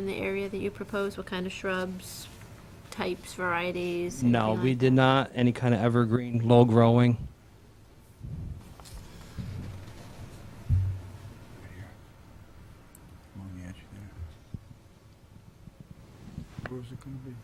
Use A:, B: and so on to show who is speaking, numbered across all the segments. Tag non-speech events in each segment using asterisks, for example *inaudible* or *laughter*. A: in the area that you propose? What kind of shrubs, types, varieties?
B: No,
A: anything
B: we
A: like
B: did
A: that?
B: not, any kind of evergreen, low growing.
C: Along the edge there. Where was it gonna be?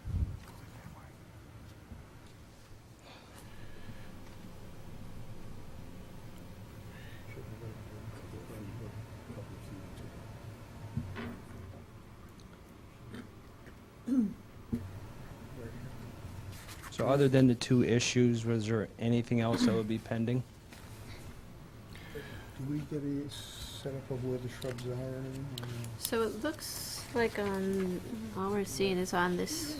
B: So other than the two issues, was there anything else that would be pending?
C: Do we get a setup of where the shrubs are or anything? or no?
A: So it looks like on, all we're seeing is on this,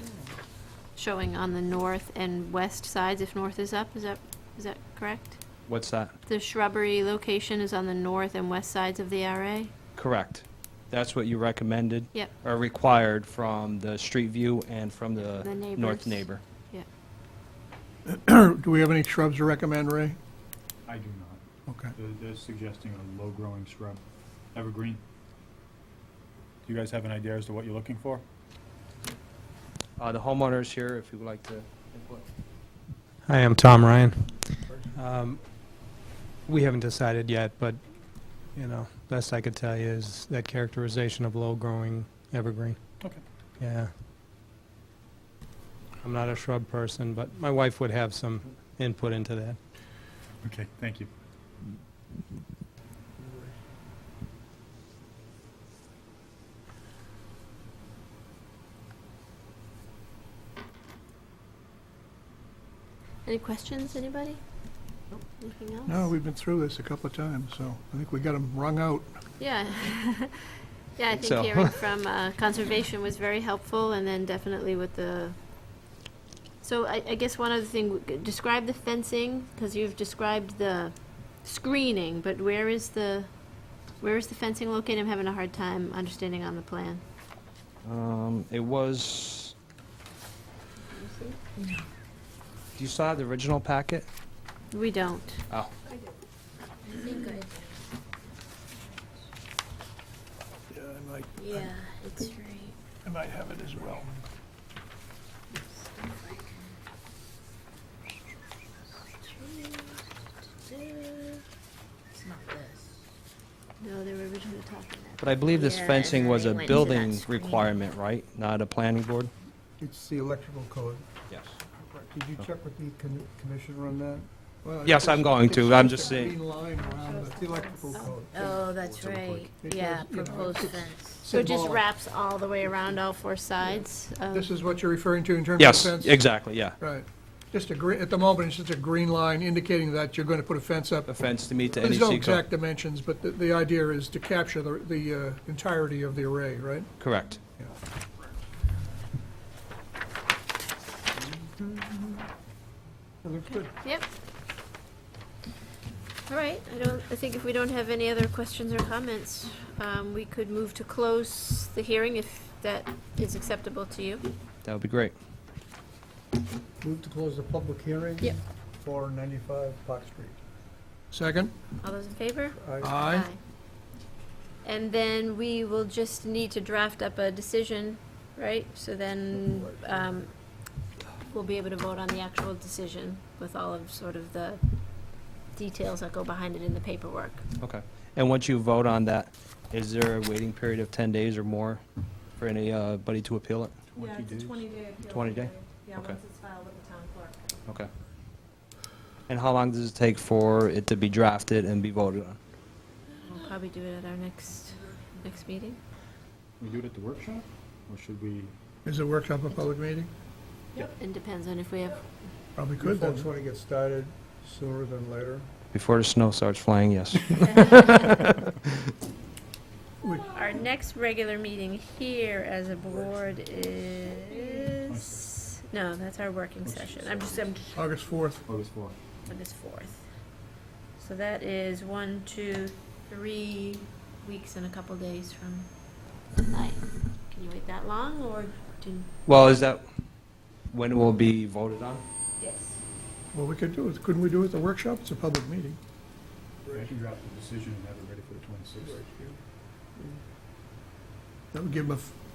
A: showing on the north and west sides, if north is up, is that, is that correct?
B: What's that?
A: The shrubbery location is on the north and west sides of the RA?
B: Correct. That's what you recommended?
A: Yep.
B: Or required from the street view and from the
A: The neighbors.
B: north neighbor?
D: Do we have any shrubs to recommend, Ray?
E: I do not.
D: Okay.
E: They're, they're suggesting a low-growing shrub, evergreen. Do you guys have an idea as to what you're looking for?
B: Uh, the homeowners here, if you would like to input.
F: Hi, I'm Tom Ryan. Um, We haven't decided yet, but, you know, best I could tell you is that characterization of low-growing evergreen.
E: Okay.
F: Yeah. I'm not a shrub person, but my wife would have some input into that.
E: Okay, thank you.
A: Any questions, anybody? Anything else?
D: No, we've been through this a couple of times, so I think we got them wrung out.
A: Yeah. *laughs* Yeah, I
B: So-
A: think hearing from uh, Conservation was very helpful, and then definitely with the, so I, I guess one other thing, describe the fencing, because you've described the screening, but where is the, where is the fencing located? I'm having a hard time understanding on the plan.
B: Um, it was, do you saw the original packet?
A: We don't.
B: Oh.
D: Yeah, I might,
A: Yeah, it's right.
D: I might have it as well.
A: No, they were originally talking that.
B: But I believe this
G: Yeah,
B: fencing was a
G: everything went into that
B: building
G: screen.
B: requirement, right? Not a planning board?
C: It's the electrical code.
B: Yes.
C: Did you check with the con- commissioner on that? Well, it
B: Yes, I'm
C: just-
B: going
C: it's
B: to.
C: just
B: I'm just
C: a
B: saying.
C: Green line around the- the electrical code.
G: Oh, that's right.
D: It
G: Yeah,
D: does, you know,
G: proposed
D: it's-
G: fence.
A: So it just
D: Symbolic.
A: wraps all the way around all four sides of?
D: This is what you're referring to in terms of
B: Yes,
D: fence?
B: exactly, yeah.
D: Right. Just a green, at the moment, it's just a green line indicating that you're going to put a fence up.
B: A fence to meet the
D: There's no
B: NEC
D: exact
B: code.
D: dimensions, but the, the idea is to capture the, the uh, entirety of the array, right?
B: Correct.
C: It looks good.
A: Yep. All right, I don't, I think if we don't have any other questions or comments, um, we could move to close the hearing if that is acceptable to you.
B: That would be great.
C: Move to close the public hearing.
A: Yep.
C: For 95 Park Street.
D: Second?
A: All those in favor?
C: I-
D: Aye.
A: And then we will just need to draft up a decision, right? So then, um, we'll be able to vote on the actual decision with all of sort of the details that go behind it in the paperwork.
B: Okay. And once you vote on that, is there a waiting period of 10 days or more for anybody to appeal it?
H: Yeah,
E: 20
H: it's a
E: days.
H: 20-day appeal.
B: 20 day?
H: period. Yeah,
B: Okay.
H: once it's filed with the town clerk.
B: Okay. And how long does it take for it to be drafted and be voted on?
A: We'll probably do it at our next, next meeting.
E: We do it at the workshop, or should we?
D: Is it workshop a public meeting?
A: And depends on if we have
D: Probably
C: You
D: could, then.
C: folks want to get started sooner than later?
B: Before the snow starts flying, yes.
A: Our next regular meeting here as a board is, no, that's our working session. I'm just, I'm
D: August 4th.
E: August fourth.
A: August fourth. So that is one, two, three weeks and a couple days from tonight. Can you wait that long or do?
B: Well, is that when it will be voted on?
A: Yes.
D: Well, we could do it, couldn't we do it at the workshop? It's a public meeting.
E: I can draft the decision and have it ready for the twenty-sixth.
D: That would give them a f-